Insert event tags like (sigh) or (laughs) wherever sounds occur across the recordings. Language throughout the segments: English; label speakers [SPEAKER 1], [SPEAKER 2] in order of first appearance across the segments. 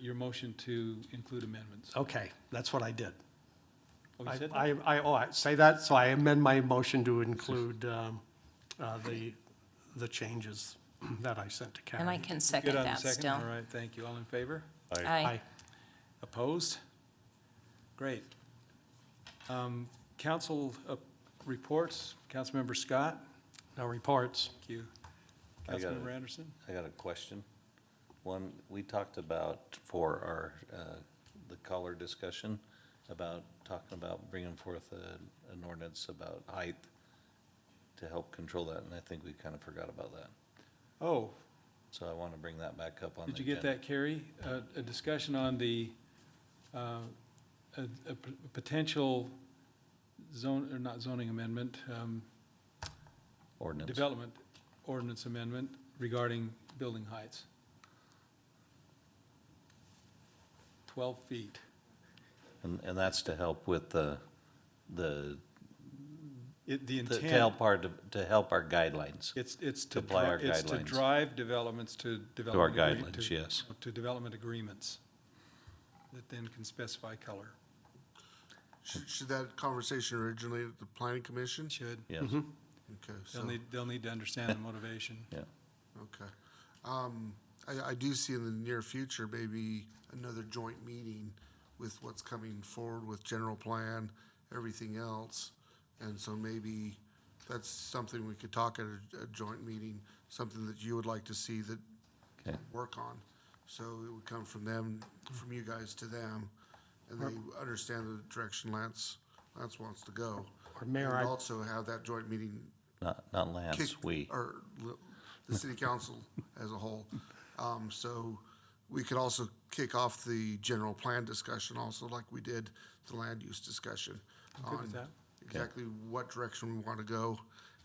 [SPEAKER 1] your motion to include amendments.
[SPEAKER 2] Okay, that's what I did.
[SPEAKER 1] Oh, you
[SPEAKER 2] I,
[SPEAKER 1] said that?
[SPEAKER 2] I, I- oh, I say that, so I amend my motion to include um, uh, the, the changes that I sent to Karen.
[SPEAKER 3] And I can
[SPEAKER 1] Good
[SPEAKER 3] second
[SPEAKER 1] on the
[SPEAKER 3] that
[SPEAKER 1] second?
[SPEAKER 3] still.
[SPEAKER 1] All right, thank you. All in favor?
[SPEAKER 2] Aye.
[SPEAKER 1] Opposed? Great. Um, Council uh, reports, Councilmember Scott,
[SPEAKER 2] No reports.
[SPEAKER 1] thank you.
[SPEAKER 4] I got
[SPEAKER 1] Councilmember
[SPEAKER 4] it.
[SPEAKER 1] Anderson?
[SPEAKER 4] I got a question. One, we talked about for our, uh, the color discussion, about talking about bringing forth a- an ordinance about height to help control that, and I think we kind of forgot about that.
[SPEAKER 1] Oh,
[SPEAKER 4] So I want to bring that back up on the
[SPEAKER 1] did you get
[SPEAKER 4] agenda.
[SPEAKER 1] that, Carrie? A- A discussion on the, uh, a a p- potential zone, or not zoning amendment, um,
[SPEAKER 4] Ordinance.
[SPEAKER 1] development ordinance amendment regarding building heights. Twelve feet.
[SPEAKER 4] And, and that's to help with the, the,
[SPEAKER 1] It, the
[SPEAKER 4] to to help
[SPEAKER 1] intent,
[SPEAKER 4] part, to help our guidelines.
[SPEAKER 1] it's, it's to,
[SPEAKER 4] apply our
[SPEAKER 1] dri- it's to
[SPEAKER 4] guidelines.
[SPEAKER 1] drive developments to
[SPEAKER 4] To our
[SPEAKER 1] development. agree-
[SPEAKER 4] guidelines,
[SPEAKER 1] to-
[SPEAKER 4] yes.
[SPEAKER 1] To development agreements that then can specify color.
[SPEAKER 5] Should, should that conversation originate at the planning commission?
[SPEAKER 1] Should,
[SPEAKER 4] Yes,
[SPEAKER 5] Okay, so,
[SPEAKER 1] they'll need, they'll need to understand the
[SPEAKER 2] (laughs)
[SPEAKER 1] motivation.
[SPEAKER 4] yeah.
[SPEAKER 5] okay. Um, I, I do see in the near future, maybe another joint meeting with what's coming forward with general plan, everything else. And so maybe that's something we could talk at a, a joint meeting, something that you would like to see that
[SPEAKER 4] Okay.
[SPEAKER 5] work on. So it would come from them, from you guys to them, and they understand the direction Lance, Lance wants to go.
[SPEAKER 2] Or Mayor,
[SPEAKER 5] And
[SPEAKER 2] I-
[SPEAKER 5] also have that joint meeting
[SPEAKER 4] Not, not Lance,
[SPEAKER 5] kick-
[SPEAKER 4] we.
[SPEAKER 5] Or l- the city council as a whole. Um, so we could also kick off the general plan discussion also like we did the land use discussion.
[SPEAKER 1] good with
[SPEAKER 5] on
[SPEAKER 1] that.
[SPEAKER 5] Exactly what direction we want to go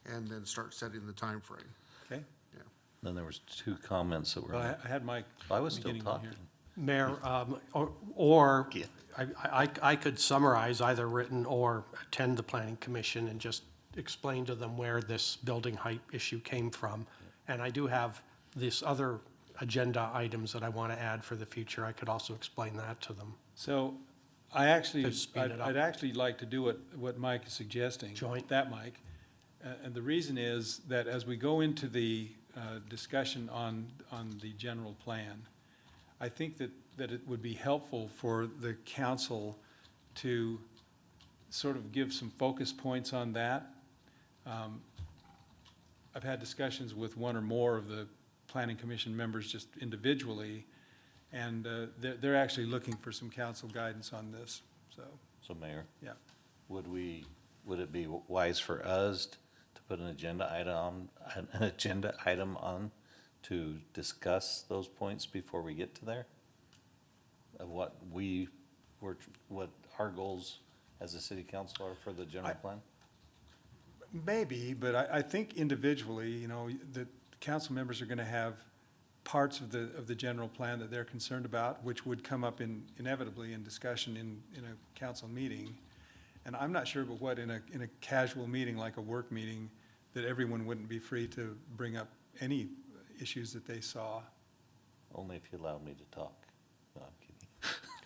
[SPEAKER 5] and then start setting the timeframe.
[SPEAKER 1] Okay?
[SPEAKER 5] Yeah.
[SPEAKER 4] Then there was two comments that
[SPEAKER 1] Well,
[SPEAKER 4] were,
[SPEAKER 1] I, I had my.
[SPEAKER 4] I was still
[SPEAKER 1] beginning one here.
[SPEAKER 4] talking.
[SPEAKER 2] Mayor, um, or- or,
[SPEAKER 4] Yeah.
[SPEAKER 2] I, I, I could summarize either written or attend the planning commission and just explain to them where this building height issue came from. And I do have this other agenda items that I want to add for the future. I could also explain that to them.
[SPEAKER 1] So I actually,
[SPEAKER 2] To speed
[SPEAKER 1] I'd
[SPEAKER 2] it up.
[SPEAKER 1] I'd actually like to do what, what Mike is suggesting.
[SPEAKER 2] Joint.
[SPEAKER 1] That, Mike. Uh, And the reason is that as we go into the uh, discussion on, on the general plan, I think that, that it would be helpful for the council to sort of give some focus points on that. Um, I've had discussions with one or more of the planning commission members just individually, and uh, they're, they're actually looking for some council guidance on this, so,
[SPEAKER 4] So Mayor.
[SPEAKER 1] yeah.
[SPEAKER 4] Would we, would it be wise for us to put an agenda item, um, an agenda item on to discuss those points before we get to there? Of what we, were, what our goals as a city council are for the general plan?
[SPEAKER 1] Maybe, but I, I think individually, you know, the council members are gonna have parts of the, of the general plan that they're concerned about, which would come up in, inevitably in discussion in, in a council meeting. And I'm not sure but what, in a, in a casual meeting, like a work meeting, that everyone wouldn't be free to bring up any issues that they saw.
[SPEAKER 4] Only if you allow me to talk. No, I'm kidding.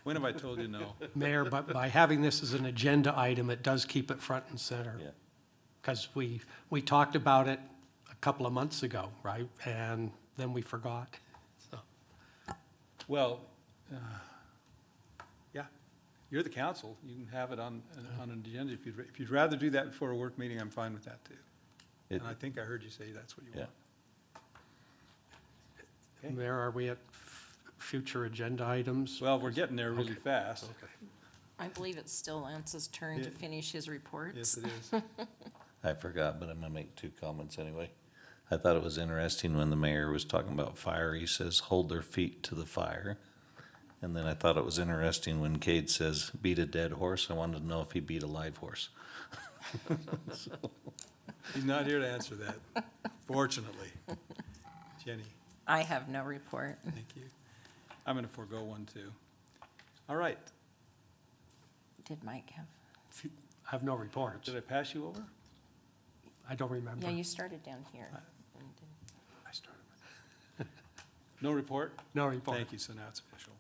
[SPEAKER 1] When have I told you no?
[SPEAKER 2] Mayor, but by having this as an agenda item, it does keep it front and center.
[SPEAKER 4] Yeah.
[SPEAKER 2] Because we, we talked about it a couple of months ago, right? And then we forgot. So,
[SPEAKER 1] Well, uh, yeah, you're the council, you can have it on, on an agenda. If you'd, if you'd rather do that before a work meeting, I'm fine with that too.
[SPEAKER 4] It-
[SPEAKER 1] And I think I heard you say that's what you
[SPEAKER 4] Yeah.
[SPEAKER 1] want. Okay.
[SPEAKER 2] Mayor, are we at f- future agenda items?
[SPEAKER 1] Well, we're getting there really fast.
[SPEAKER 3] I believe it's still Lance's turn to
[SPEAKER 1] Yeah.
[SPEAKER 3] finish his reports.
[SPEAKER 1] Yes, it is.
[SPEAKER 4] I forgot, but I'm gonna make two comments anyway. I thought it was interesting when the mayor was talking about fire, he says, hold their feet to the fire. And then I thought it was interesting when Cade says, beat a dead horse, I wanted to know if he beat a live horse.
[SPEAKER 1] (laughs) He's not here to answer (laughs) that, fortunately. Jenny,
[SPEAKER 3] I have no report.
[SPEAKER 1] thank you. I'm going to forego one too. All right,
[SPEAKER 3] Did Mike have?
[SPEAKER 2] I have no reports.
[SPEAKER 1] did I pass you over?
[SPEAKER 2] I don't remember.
[SPEAKER 3] Yeah, you started down here.
[SPEAKER 1] No report?
[SPEAKER 2] No report.
[SPEAKER 1] Thank you, so now it's official.